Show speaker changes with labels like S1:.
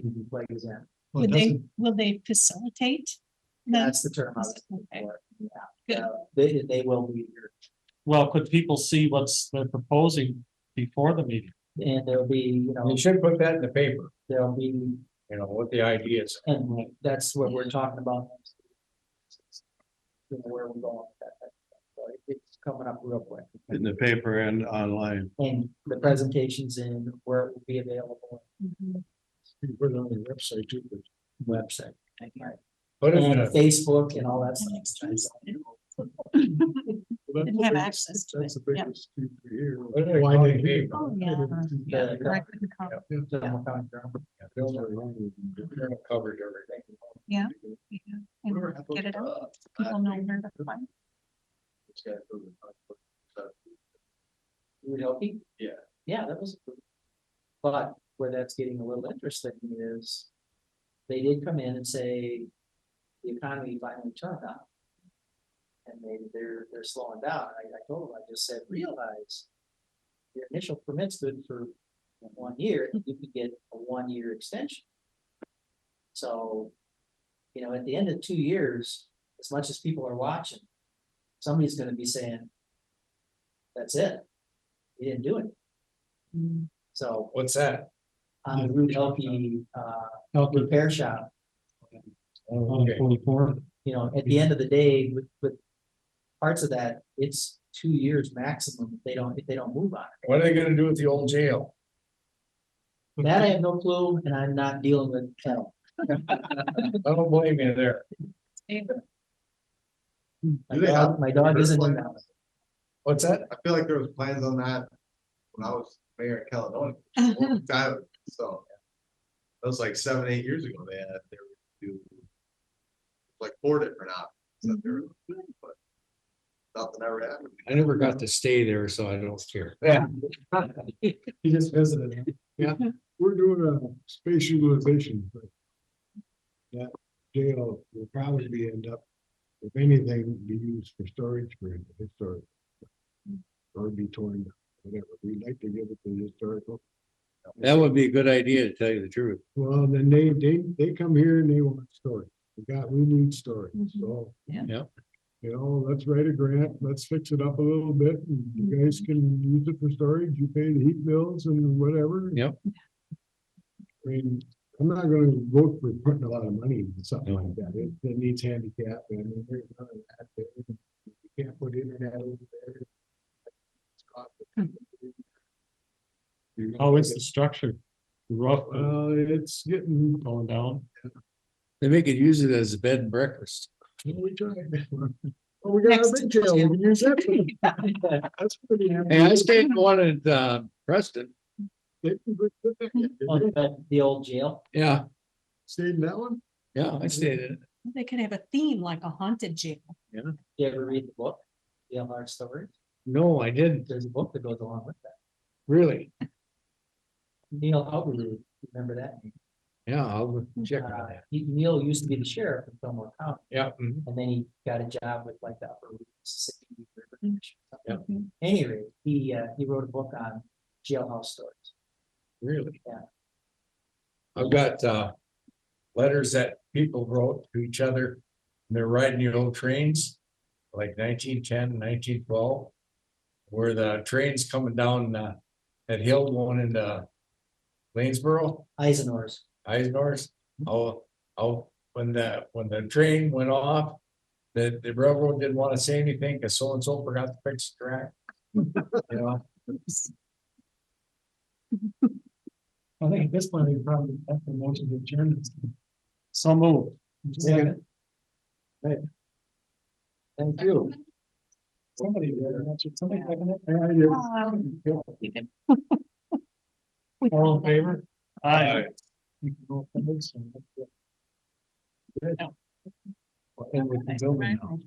S1: can be plays in.
S2: Well, it
S3: Would they,
S2: doesn't-
S3: will they facilitate?
S1: That's the term I was
S3: Okay.
S1: looking for.
S3: Good.
S1: Uh, They, they will be here.
S2: Well, could people see what's they're proposing before the meeting?
S1: And there'll be, you know,
S4: You should put that in the paper,
S1: there'll be,
S4: you know, what the idea is.
S1: and that's what we're talking about. You know, where we're going with that. type of stuff. So it- It's coming up real quick.
S5: in the paper and online.
S1: And the presentations in where it will be available
S3: Mhm.
S4: You put it on the website too.
S1: website
S4: But
S1: and
S4: it's,
S1: Facebook and all that stuff.
S3: Didn't have access to it. yeah.
S4: Why they pay.
S3: Oh, yeah.
S1: Yeah.
S3: Or I couldn't come.
S4: Covered everything.
S3: Yeah. yeah, and Get it out.
S4: uh,
S3: People know where to find.
S1: Would help you?
S4: Yeah.
S1: Yeah, that was. But where that's getting a little interesting is. They did come in and say. The economy finally turned on. And they, they're, they're slowing down. I, I told them, I just said, realize. Your initial permit's good for one year, you could get a one-year extension. So. You know, at the end of two years, as much as people are watching. Somebody's gonna be saying. That's it. You didn't do it. So
S4: What's that?
S1: on the Route LP uh
S2: Calculate
S1: repair shop,
S6: Um,
S2: on
S4: Okay.
S2: forty-four.
S1: you know, at the end of the day with with. Parts of that, it's two years maximum if they don't, if they don't move on
S4: What are they gonna do with the old jail?
S1: it. That I have no clue and I'm not dealing with hell.
S4: I don't blame you there.
S1: My
S7: Do they
S1: dog, my dog isn't in that.
S4: What's that?
S7: I feel like there was plans on that when I was mayor of Caledonia, a
S2: Mm-hmm.
S7: long time, ago, so. That was like seven, eight years ago, they had, they were do. Like four different options, that they were doing, but. Nothing ever happened.
S6: I never got to stay there, so I don't care.
S4: Yeah. He just visited.
S6: We're doing a space utilization. thing. That jail will probably be end up, if anything, be used for storage for historic. Or be torn, down, whatever. We'd like to give it to the historical.
S5: That would be a good idea, to tell you the truth.
S6: Well, then they, they, they come here and they want storage. We got, we need storage,
S3: Mhm.
S6: so.
S3: Yeah.
S5: Yep.
S6: You know, let's write a grant, let's fix it up a little bit, and you guys can use it for storage, you pay the heat bills and whatever.
S5: Yep.
S6: I mean, I'm not gonna vote for putting a lot of money into something like that, it, it needs handicap, and I mean, there's none of that there. You can't put internet over there. It's costly. You're gonna
S2: How is
S6: get-
S2: Hmm. Oh, the structure? Rough, uh,
S6: Well, it's getting,
S2: going down?
S5: They make it use it as a bed and breakfast.
S6: we tried. Well, we got a
S3: Next
S6: big jail, we can use that. for- That's pretty.
S5: Hey, I stayed in one at uh, Preston.
S6: They can put- put that in. Did
S1: On
S6: they
S1: the- The old jail.
S5: Yeah,
S6: Stay in that one?
S5: yeah, I stayed in it.
S3: They could have a theme like a haunted jail.
S1: You ever read the book? Jail Hard Story?
S5: No, I didn't,
S1: There's a book that goes along with that.
S5: really.
S1: Neil Hubbard, remember that? name?
S5: Yeah, I'll check on
S1: Uh,
S5: that.
S1: he- Neil used to be the sheriff in Fillmore County.
S5: Yeah. mhm.
S1: And then he got a job with like the Upper Mississippi River.
S3: Mm.
S1: Commission or something. Anyway, he, uh, he wrote a book on jailhouse stories.
S5: Really?
S4: I've got, uh, letters that people wrote to each other. and They're riding the old trains, like 1910, 1912, Where the train's coming down, uh, that hill going into Lanesboro.
S1: Eisenhower's,
S4: Eisner's, oh, oh, when the, when the train went off. The, the railroad didn't wanna say anything, cause so and so forgot to fix the track. You know?
S2: I think at this point, we probably have the motion to adjourn. So move.
S4: Yeah.
S1: thank you.
S2: Somebody, somebody second it?
S3: Um, you could-
S2: All in favor?
S4: Aye.
S2: Aye.
S3: Right.